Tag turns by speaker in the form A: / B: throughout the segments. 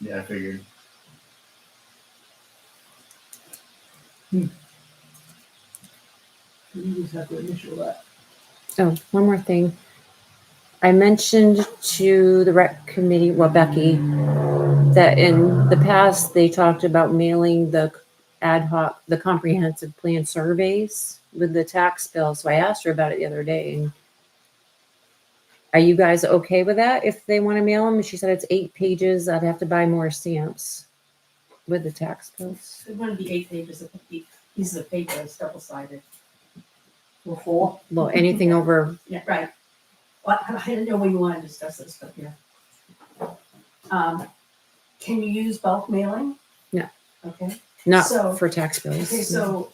A: Yeah, I figured.
B: You just have to initial that.
C: Oh, one more thing. I mentioned to the rec committee, well, Becky, that in the past, they talked about mailing the ad hoc, the comprehensive plan surveys with the tax bill. So I asked her about it the other day. and Are you guys okay with that if they want to mail them? And she said it's eight pages. I'd have to buy more stamps with the tax bills.
D: It wouldn't be eight pages, it would be pieces of paper, it's double sided.
B: Or four.
C: Well, anything over,
D: Yeah, right. Well, I I didn't know where you wanted to discuss this, but yeah. Um, can you use bulk mailing?
C: No.
D: Okay,
C: not
D: So-
C: for tax bills.
D: okay, so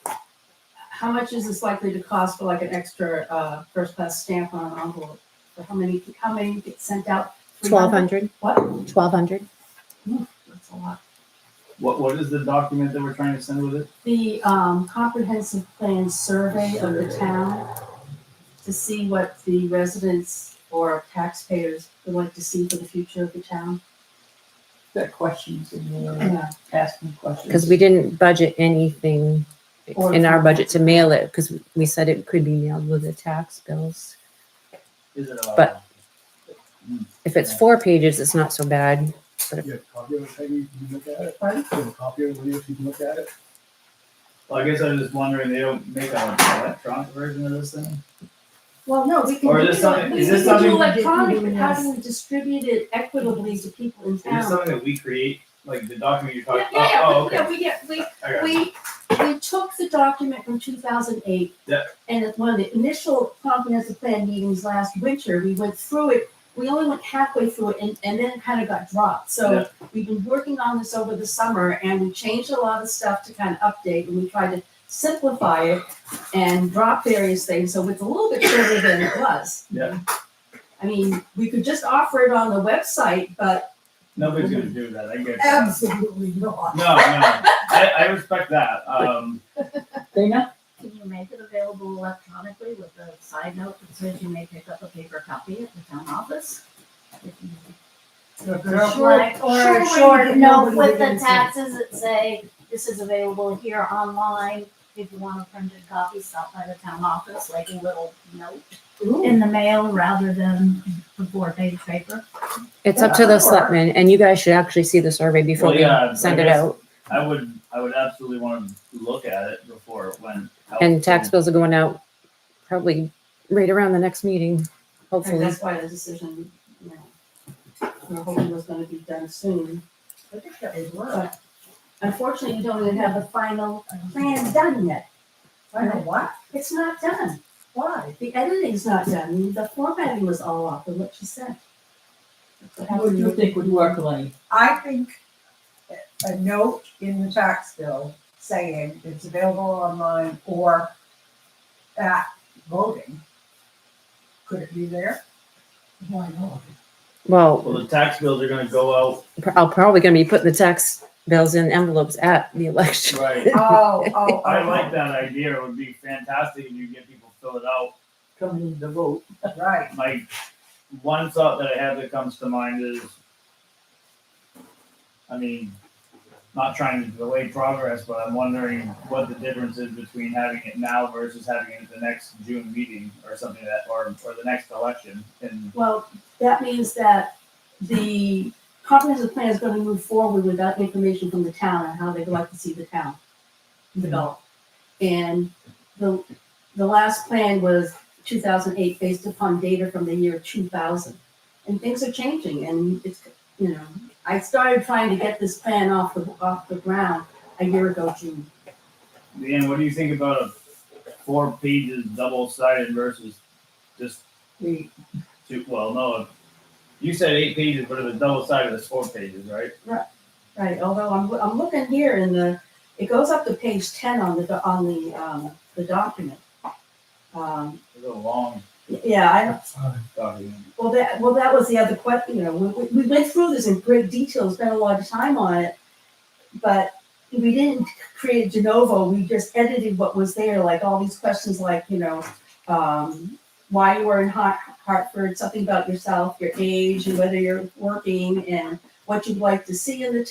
D: how much is this likely to cost for like an extra, uh, first class stamp on an envelope? For how many, how many get sent out? 300?
C: 1,200,
D: What?
C: 1,200.
D: That's a lot.
A: What What is the document that we're trying to send with it?
D: The, um, comprehensive plan survey of the town to see what the residents or taxpayers would like to see for the future of the town.
B: That questions and you're
D: Yeah.
B: asking questions.
C: Because we didn't budget anything
D: Or-
C: in our budget to mail it, because we said it could be mailed with the tax bills.
A: Is it uh, a?
C: But- If it's four pages, it's not so bad.
E: You have a copy of it, Peggy, you can look at it.
D: Pardon?
E: You have a copy of it, Leah, if you can look at it.
A: Well, I guess I was just wondering. They don't make an electronic version of this thing.
D: Well, no, we can
A: Or
D: do
A: is this
D: it,
A: something-
D: we
A: is
D: can
A: this
D: do
A: something-
D: electronic, but how do we distribute it equitably to people in
A: Is this
D: town?
A: something that we create? Like the document you're
D: Yeah,
A: talking?
D: yeah, yeah,
A: oh,
D: we-
A: okay.
D: yeah, we, get- we,
A: I got it.
D: we, we took the document from two thousand eight.
A: Yeah.
D: And at one of the initial comprehensive plan meetings last winter, we went through it, we only went halfway through it and, and then it kind of got dropped.
A: Yeah.
D: So we've been working on this over the summer and we changed a lot of stuff to kind of update and we tried to simplify it and drop various things, so it's a little bit shorter than it was.
A: Yeah.
D: I mean, we could just offer it on the website, but
A: Nobody's gonna do that. I get. it.
D: absolutely not.
A: No, no. I, I respect that. Um,
B: Dana?
F: Can you make it available electronically with a side note that says you may pick up a paper copy at the town office? Like, or
D: sure,
F: a
D: we
F: short
D: can-
F: note
D: nobody
F: with the
D: reads it.
F: taxes that say, this is available here online. If you want a printed copy, stop by the town office, like a little note in the mail rather than a four-page paper.
C: It's up to the selectmen, and you guys should actually see the survey before
A: Well,
C: we
A: yeah,
C: send
A: I
C: it
A: guess-
C: out.
A: I would, I would absolutely want to look at it before it went. out.
C: And tax bills are going out probably right around the next meeting,
D: And
C: hopefully.
D: that's why the decision, you know, we're hoping was gonna be done soon.
F: I think that would
D: But Unfortunately, you don't even have the final plan done yet.
F: Final
D: what? It's not done. Why? The editing's not done. The formatting was all off of what she said.
B: What do you think would work, Lenny?
G: I think a note in the tax bill saying it's available online or at voting. Could it be there?
B: Why not?
C: Well,
A: Well, the tax bills are gonna go out.
C: pr- I'm probably going to be putting the tax bills in envelopes at the election.
A: Right.
G: Oh, oh,
A: I like that idea. It would be fantastic if you get people to fill it out.
B: Coming in to vote.
G: oh, Right,
A: My one thought that I have that comes to mind is, I mean, not trying to delay progress, but I'm wondering what the difference is between having it now versus having it at the next June meeting or something like that, or, or the next election. And
D: Well, that means that the comprehensive plan is gonna move forward without information from the town on how they'd like to see the town develop. And the, the last plan was two thousand eight based upon data from the year two thousand. And things are changing and it's, you know, I started trying to get this plan off the, off the ground a year ago, June.
A: Leanne, what do you think about a four pages double sided versus just
B: We,
A: two? Well, no, you said eight pages, but it was double sided, it's four pages, right?
D: Right, although I'm, I'm looking here in the, it goes up to page ten on the, do- on the, um, the document. Um,
A: It's a long
D: Yeah, I,
A: document.
D: well, that, well, that was the other question, you know, we, we- we went through this in great detail, spent a lot of time on it. But we didn't create de novo, we just edited what was there, like all these questions like, you know, um, why you were in Hart- Hartford, something about yourself, your age, and whether you're working, and what you'd like to see in the